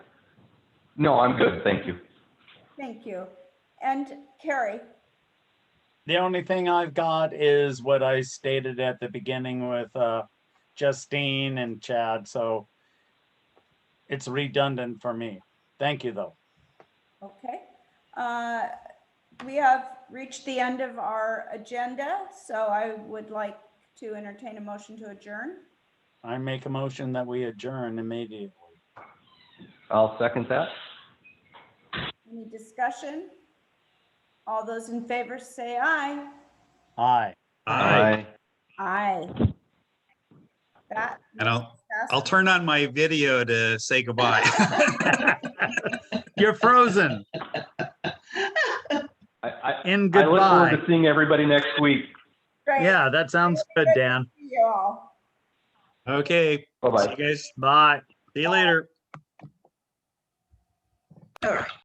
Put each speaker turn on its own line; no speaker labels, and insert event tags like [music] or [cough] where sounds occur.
No, I'm good, thank you.
Thank you. And Carrie,
The only thing I've got is what I stated at the beginning with uh, Justine and Chad, so it's redundant for me. Thank you, though.
okay. Uh, We have reached the end of our agenda, so I would like to entertain a motion to adjourn.
I make a motion that we adjourn immediately.
I'll second that.
Any discussion? All those in favor say aye.
Aye.
Aye.
Aye. That.
And I'll,
passes.
I'll turn on my video to say goodbye. [laughs] You're frozen
I, I,
In
I look forward
goodbye.
to seeing everybody next week.
Great.
Yeah, that sounds good, Dan.
See You all.
Okay, see
Bye-bye.
you guys.
Bye.
See you later.